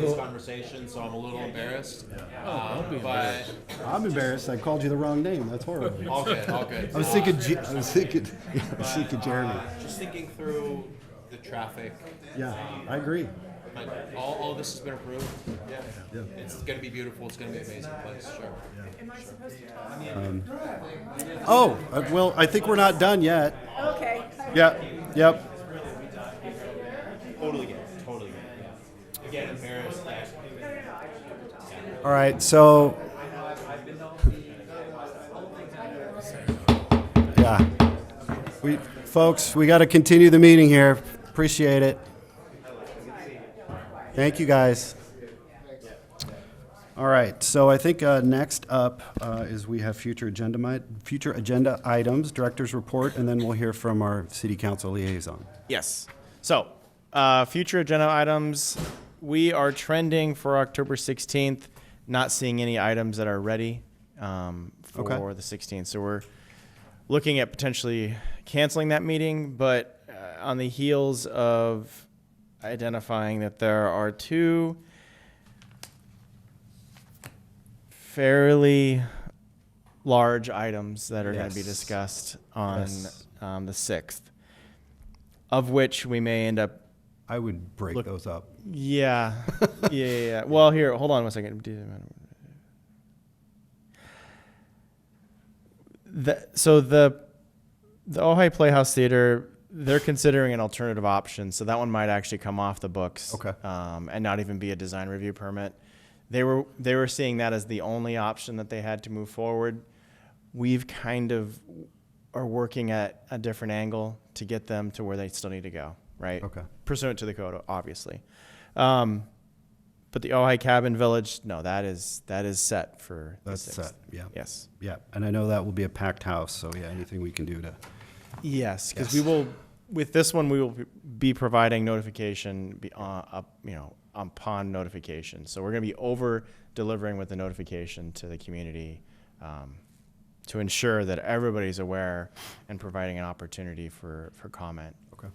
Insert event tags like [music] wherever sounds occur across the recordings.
this conversation, so I'm a little embarrassed. Uh, Oh, don't be But embarrassed. I'm embarrassed. I called you the wrong name. That's horrible. all good, all good. I was thinking. Je- I was thinking. [laughs] I was thinking Jeremy. Uh, just thinking through the traffic. Yeah, I agree. Like all, all this has been approved. Yeah. Yeah. It's gonna be beautiful. It's gonna be an amazing place. Sure. Am I supposed to talk? Oh, uh, well, I think we're not done yet. Okay. Yeah. Yep. Totally get it. Totally get it. Again, embarrassed that All right. So. Yeah. We, folks, we got to continue the meeting here. Appreciate it. Thank you, guys. All right, so I think uh, next up uh, is we have future agenda, mi- future agenda items, director's report, and then we'll hear from our city council liaison. Yes. So, uh, future agenda items. We are trending for October 16th, not seeing any items that are ready um, for Okay. the 16th. So, we're looking at potentially canceling that meeting, but uh, on the heels of identifying that there are two fairly large items that are going to be Yes. discussed on Yes. um, the 6th of which we may end up. I would break those up. Yeah, yeah, yeah, yeah. Well, here, hold on one second. Do- The, so the the Ojai Playhouse Theater, they're considering an alternative option, so that one might actually come off the books. Okay. Um, and not even be a design review permit. They were they were seeing that as the only option that they had to move forward. We've kind of are working at a different angle to get them to where they still need to go, right? Okay. Pursuant to the code, obviously. Um, but the Ojai Cabin Village, no, that is that is set for the That's 6th. set, yeah. Yes. Yeah, and I know that will be a packed house, so yeah, anything we can do to. Yes, because Yes. we will with this one we will be providing notification be, uh, up, you know upon notification. So we're going to be over delivering with the notification to the community um, to ensure that everybody's aware and providing an opportunity for for comment. Okay.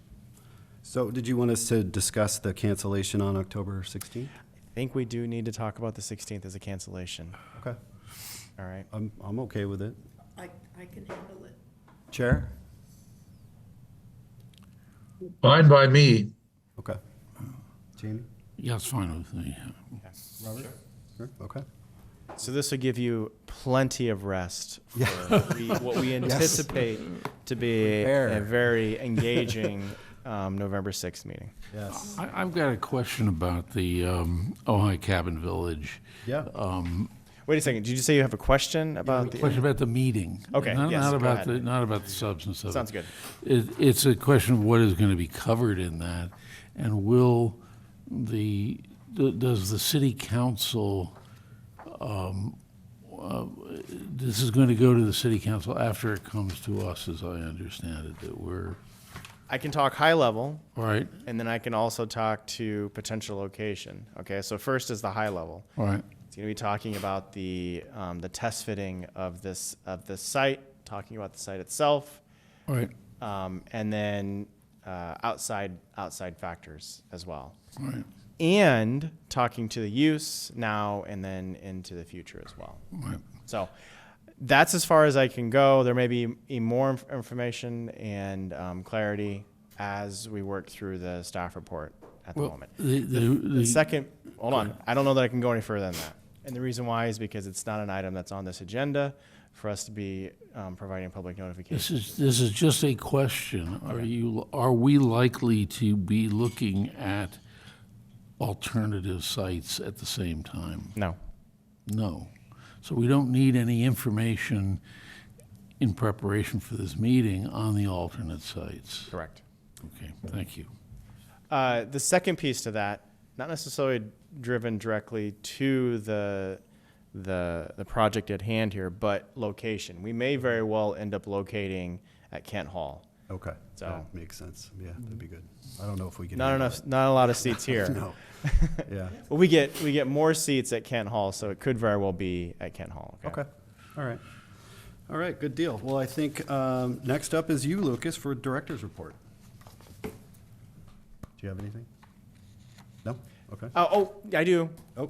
So did you want us to discuss the cancellation on October 16th? I think we do need to talk about the 16th as a cancellation. Okay. All right. I'm, I'm okay with it. I, I can handle it. Chair? Fine by me. Okay. Jamie? Yeah, it's fine with me. Sure, Okay. So this will give you plenty of rest for we, what we anticipate to be a Prepare. very engaging um, November 6th meeting. Yes. I, I've got a question about the um, Ojai Cabin Village. Yeah. Uh, Wait a second. Did you say you have a question about the? Question about the meeting. Okay, Not, yes, not go about ahead. the not about the substance of it. Sounds good. It, it's a question of what is going to be covered in that, and will the d- does the city council? Um, uh, this is going to go to the city council after it comes to us, as I understand it. That we're I can talk high level, all right. and then I can also talk to potential location. Okay. So first is the high level. All right. It's going to be talking about the um, the test fitting of this of this site, talking about the site itself, All right. um, and then uh, outside outside factors as well, All right. and talking to the use now and then into the future as well. All right. So that's as far as I can go. There may be e- more inf- information and um, clarity as we work through the staff report at the moment. The, the, The the, second, hold on, I don't know that I can go any further than that. And the reason why is because it's not an item that's on this agenda for us to be um, providing public this notification. is this is just a question. Are you are we likely to be looking at alternative sites at the same time? No. No. So we don't need any information in preparation for this meeting on the alternate sites. Correct. Okay, thank you. Uh, the second piece to that, not necessarily driven directly to the the the project at hand here, but location. We may very well end up locating at Kent Hall. Okay. So- That Makes sense. Yeah, that'd be good. I don't know if we can. Not handle enough, not a lot of seats here. it. [laughs] [laughs] No. Yeah. But we get we get more seats at Kent Hall, so it could very well be at Kent Hall. Okay. All right. All right, good deal. Well, I think um, next up is you, Lucas, for director's report. Do you have anything? No? Okay. Uh, oh, I do.